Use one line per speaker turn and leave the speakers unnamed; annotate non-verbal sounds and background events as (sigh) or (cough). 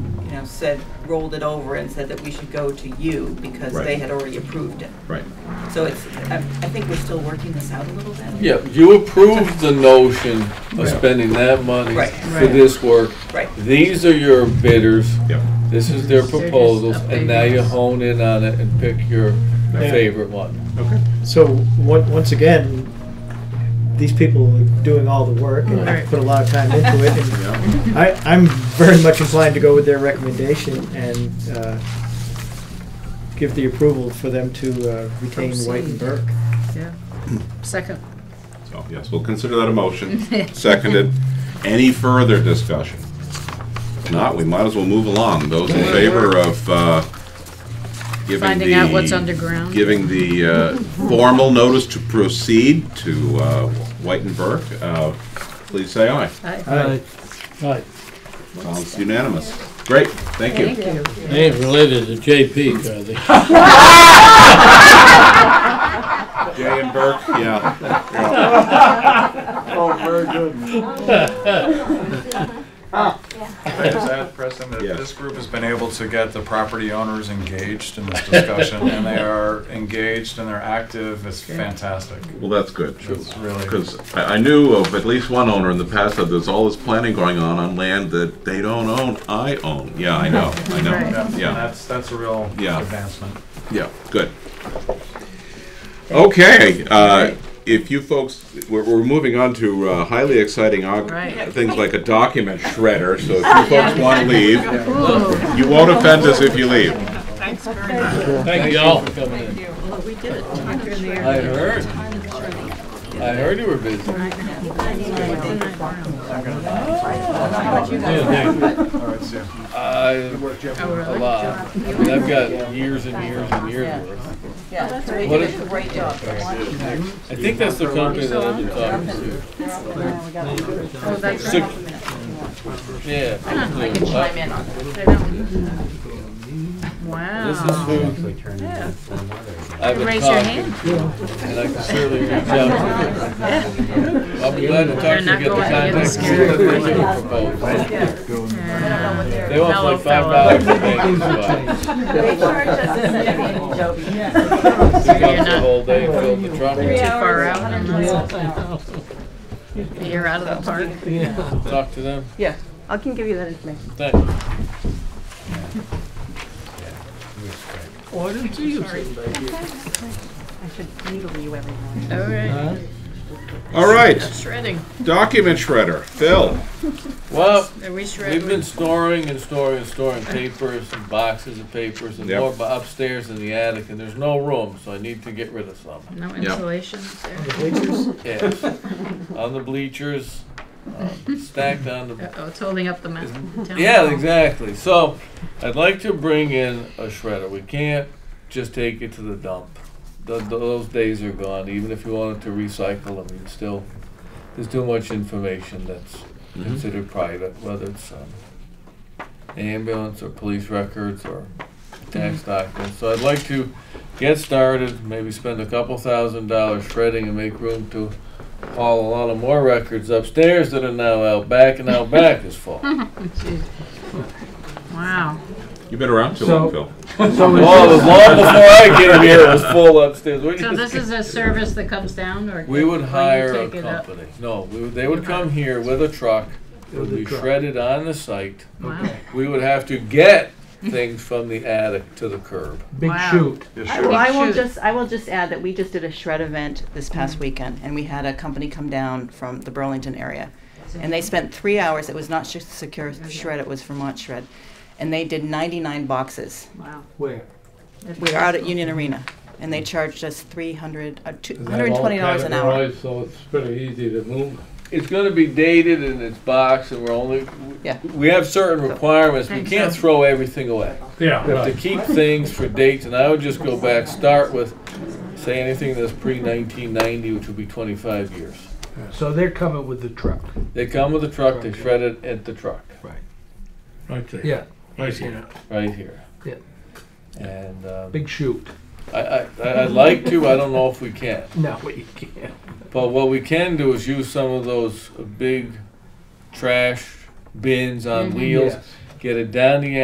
know, said, rolled it over and said that we should go to you because
Right.
they had already approved it.
Right.
So it's, I, I think we're still working this out a little bit.
Yeah, you approved the notion
Right.
of spending that money
Right.
for this work.
Right.
These are your bidders,
Yep.
this is their
They're just
proposals, and now you
updating us.
hone in on it and pick your
Yeah.
favorite one.
Okay.
So, on- once again, these people are doing all the work and
Right.
put a lot of time into it. and
Yeah.
I, I'm very much inclined to go with their recommendation and uh, give the approval for them to uh, retain White and Burke.
Yeah. Second.
So, yes, we'll consider that a motion. Seconded. Any further discussion? If not, we might as well move along. Those in favor of uh, giving the...
Finding out what's underground.
Giving the uh, formal notice to proceed to uh, White and Burke, uh, please say aye.
Aye.
Aye. Aye.
Sounds unanimous. Great, thank
Thank
you.
you.
They ain't related to JP, are they?
Jay and Burke, yeah.
Oh, very good.
Is that, Preston, that
Yes.
this group has been able to get the property owners engaged in this discussion, and they are engaged and they're active, it's fantastic.
Well, that's good.
It's really,
Because I, I knew of at least one owner in the past that there's all this planning going on on land that they don't own, I own. Yeah, I know, I
yeah,
know,
and
yeah,
that's, that's a real
Yeah.
advancement.
yeah, good. Okay, uh, if you folks, we're, we're moving on to uh, highly exciting arg-
Right.
things like a document shredder, so if you folks want to leave,
Ooh.
you won't offend us if you leave.
Thanks very much.
Thank you all for coming in.
Well, we did it.
I heard, I heard you were busy. Ah. Yeah, thank- I-
Oh,
All right, see ya.
A
really?
lot. I mean, I've got years and years and years worth.
Yeah,
did
you
What
did
is-
a Oh, great job.
I think that's the company that I've been talking
Oh,
to.
that's
Six-
right.
Yeah.
I can chime in on it.
They don't- Wow.
This is
I've been
Raise your
talking,
hand.
And I can certainly reach out to them. I'll be glad to talk to you,
They're not
get the
going to get
contact, see
scared.
what they do propose. They
(laughs)
want like five dollars a day, so
They charged us a city in Joby.
I pick up the whole day, fill the truck,
Far out. You're out of the park.
talk to them,
Yeah, I can give you that information.
thanks.
Why didn't you say
I should needle you every morning.
All right.
All right,
Shredding.
document shredder, Phil.
Well,
Are we shredding?
we've been storing and storing and storing papers and boxes of papers and
Yep.
more bu- upstairs in the attic, and there's no room, so I need to get rid of some.
No insulation there.
Yes, (laughs) on the bleachers, um, stacked on the
Uh-oh, it's holding up the mountain.
Yeah, exactly. So I'd like to bring in a shredder. We can't just take it to the dump. Th th those days are gone. Even if you wanted to recycle them, you still there's too much information that's considered private, whether it's um, ambulance or police records or tax documents. So I'd like to get started. Maybe spend a couple thousand dollars shredding and make room to haul a lot of more records upstairs that are now out back, and out back is full.
Wow.
You've been around too
So-
long, Phil.
Well, it was long before I get here, it was full upstairs. We
So
just-
this is a service that comes down or?
(laughs) We would
or you
hire a
take it up?
company. No, we would, they would come here with a truck, it would be shredded on the site.
Wow.
We would have to get things from the attic to the curb.
Big
Wow.
shoot.
Yeah,
I
sure.
will- I will
Shoot.
just, I will just add that we just did a shred event this past weekend, and we had a company come down from the Burlington area. And they spent three hours, it was not just Secure Shred, it was Vermont Shred. And they did ninety-nine boxes.
Wow.
Where?
We are out at Union Arena, and they charged us three hundred, uh, two, hundred and twenty dollars an hour.
So it's pretty easy to move.
It's gonna be dated in its box and we're only,
Yeah.
we have certain requirements. We
Thanks,
can't
Sam.
throw everything away.
Yeah,
We have to
right.
keep things for dates and I would just go back, start with, say anything that's pre nineteen ninety, which would be twenty-five years.
So they're coming with the truck.
They come with a truck, they shred it at the truck,
Right there.
Yeah.
Right there.
right here.
Yeah.
And, um,
Big shoot.
I, I, I- I'd like to, I don't know if we can.
No, (laughs) you can't.
But what we can do is use some of those big trash bins on wheels,
Yes.
get it down the